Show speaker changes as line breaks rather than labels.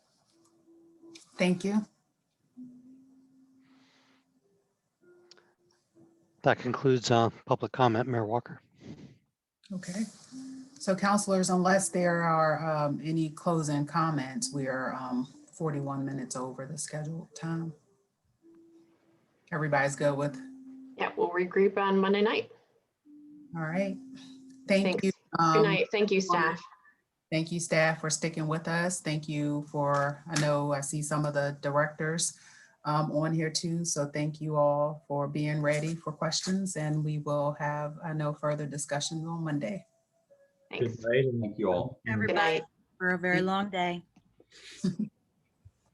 Thank you.
That concludes uh, public comment, Mayor Walker.
Okay. So counselors, unless there are um, any closing comments, we are um, 41 minutes over the scheduled time. Everybody's good with,
Yeah, we'll regroup on Monday night.
all right. Thank
Thanks.
you.
Good
um,
night. Thank you, staff.
Thank you, staff, for sticking with us. Thank you for, I know I see some of the directors um, on here too. So thank you all for being ready for questions and we will have, I know, further discussions on Monday.
Thanks.
Thank you all.
Good night.
everybody for a very long day.